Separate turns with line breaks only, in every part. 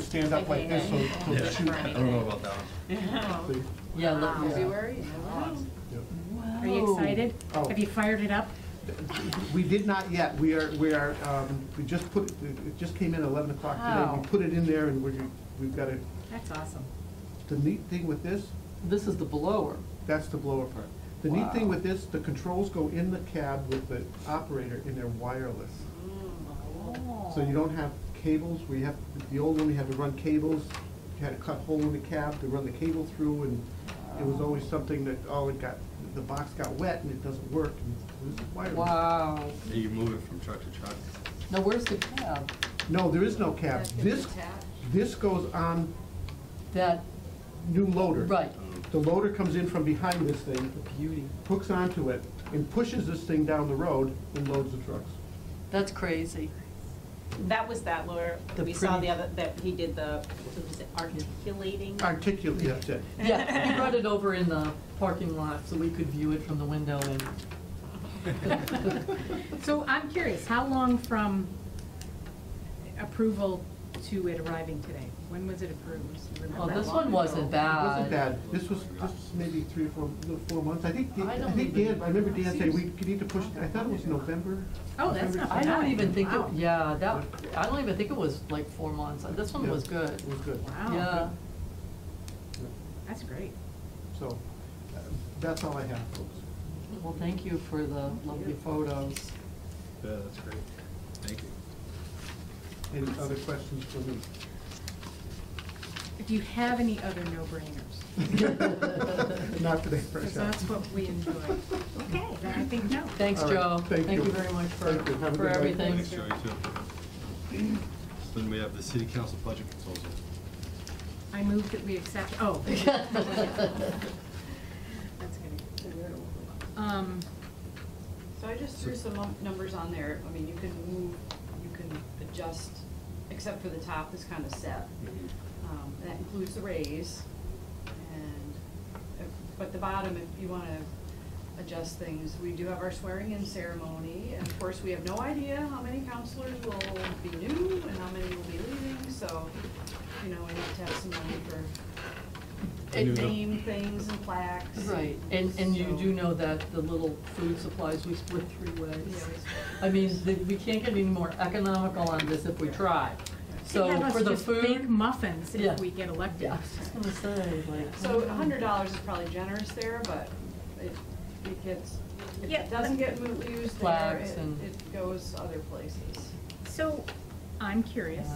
stand up like this, so
Yeah,
so shoot.
I don't know about that one.
See?
Yeah, look.
Yeah.
February?
Yeah.
Are you excited?
Oh.
Have you fired it up?
We did not yet, we are, we are, um, we just put, it it just came in at eleven o'clock today.
Oh.
We put it in there and we're, we've got it,
That's awesome.
the neat thing with this,
This is the blower.
that's the blower part. The neat thing
Wow.
with this, the controls go in the cab with the operator and they're wireless.
Mm,
So you don't have cables, we have, the old one, we had to run cables, you had to cut hole in the cab to run the cable through, and it was always something that, oh, it got, the box got wet and it doesn't work, and it was wireless.
Wow.
You move it from truck to truck.
Now, where's the cab?
No, there is no cab, this, this goes on
That,
new loader.
right,
The loader comes in from behind this thing,
beauty.
hooks onto it, and pushes this thing down the road and loads the trucks.
That's crazy.
That was that lawyer,
The
we saw
pretty-
the other, that he did the, what was it, articulating?
Articulate, that's it.
Yeah, he brought it over in the parking lot so we could view it from the window and,
So I'm curious, how long from approval to it arriving today? When was it approved? Do you remember
well,
how
this
long
one
ago?
wasn't
It wasn't
bad.
bad, this was, this was maybe three or four, no, four months, I think,
I
I
don't
think
even-
Dan, I remember Dan saying, we need to push, I thought it was November.
Oh, that's not
November,
I don't even think, it
Wow.
yeah, that, I don't even think it was like four months. This one
Yeah.
was good.
It was good,
Yeah.
Wow, that's great.
so, uh, that's all I have, folks.
Well, thank you for the lovely photos.
Yeah, that's great. Thank you.
Any other questions for me?
If you have any other no-brainers,
Not today,
because
fresh out.
that's what we enjoy. Okay, then I think no.
Thanks,
All right,
Joe.
thank you.
you very much for,
Thank you. Have a
for
good night.
everything.
Thanks, Mm-hmm. Joey, too. So Then we have the city council budget consultant.
I move that we accept, oh. That's gonna- Um,
So I just threw some num- numbers on there, I mean, you can move, you can adjust, except for the top is kind of set. Um, That includes the raise, and, if- but the bottom, if you want to adjust things, we do have our swearing-in ceremony, and of course, we have no idea how many counselors will be new and how many will be leaving, so, you know, we have to have some money for
And-
name things and plaques.
Right, and, and you
so-
do know that the little food supplies, we split three
Yeah, we
ways.
split.
I mean, the- we can't get any more economical on this if we try. So
have us
for the
just bake
food,
muffins
Yeah.
if we get elected.
yeah, I was just gonna say, like.
So a hundred dollars is probably generous there, but it, it gets, if
Yeah.
it doesn't get mo- used there,
Flags
it,
and-
it goes other places.
So, I'm curious,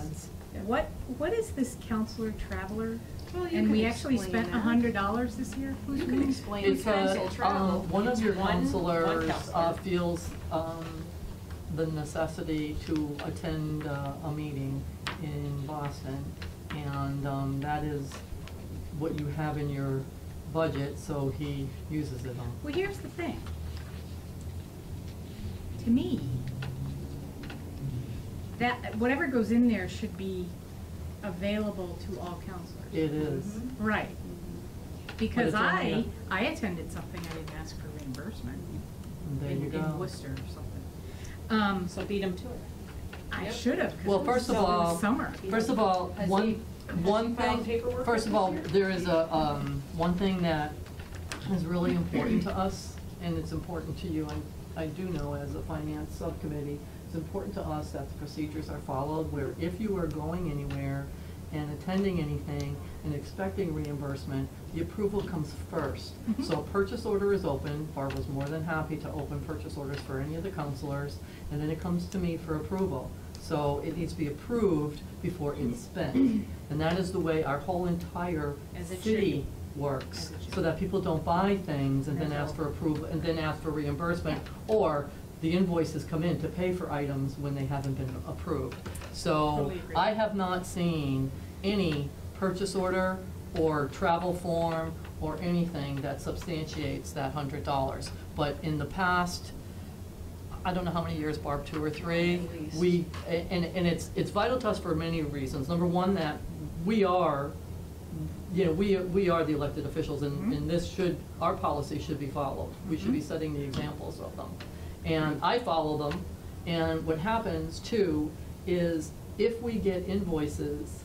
Yes.
what, what is this counselor traveler?
Well, you
And
can
we actually
explain
spent a
that.
hundred dollars this year? Who's
You can
doing-
explain
It's
council
a,
travel.
um, one of your
It's one- one
counselors uh,
counselor.
feels, um, the necessity to attend uh, a meeting in Boston. And, um, that is what you have in your budget, so he uses it on.
Well, here's the thing. To me, that, whatever goes in there should be available to all counselors.
It is.
Right. Because
Mm-hmm. it's only a-
I, I attended something, I didn't ask for reimbursement.
There
in-
you go.
In Worcester or something. Um,
So beat him to it.
I
Yep.
should have, 'cause
Well,
it was
first of
so- it was
all-
summer.
First of all,
Has he-
one,
has
one
he filed
thing,
paperwork
first of
with
all,
you?
there is a, um, one thing that is really important to us, and it's important to you, and I do know as a finance subcommittee, it's important to us that the procedures are followed, where if you are going anywhere and attending anything and expecting reimbursement, the approval comes first.
Mhm.
So a purchase order is open, Barbara's more than happy to open purchase orders for any of the counselors, and then it comes to me for approval. So it needs to be approved before it's spent, and that is the way our whole entire
As it should
city
be.
works.
As it should
So that people don't buy things and then
That's
ask
all.
for approval, and then ask for reimbursement, or the invoices come in to pay for items when they haven't been approved. So
Totally agree.
I have not seen any purchase order or travel form or anything that substantiates that hundred dollars. But in the past, I don't know how many years, Barb, two or three,
At least.
we, a- and, and it's, it's vital to us for many reasons. Number one, that we are, you know, we, we are the elected officials
Mm-hmm.
and, and this should, our policy should be followed. We should be setting the examples of them. And I follow them, and what happens too is if we get invoices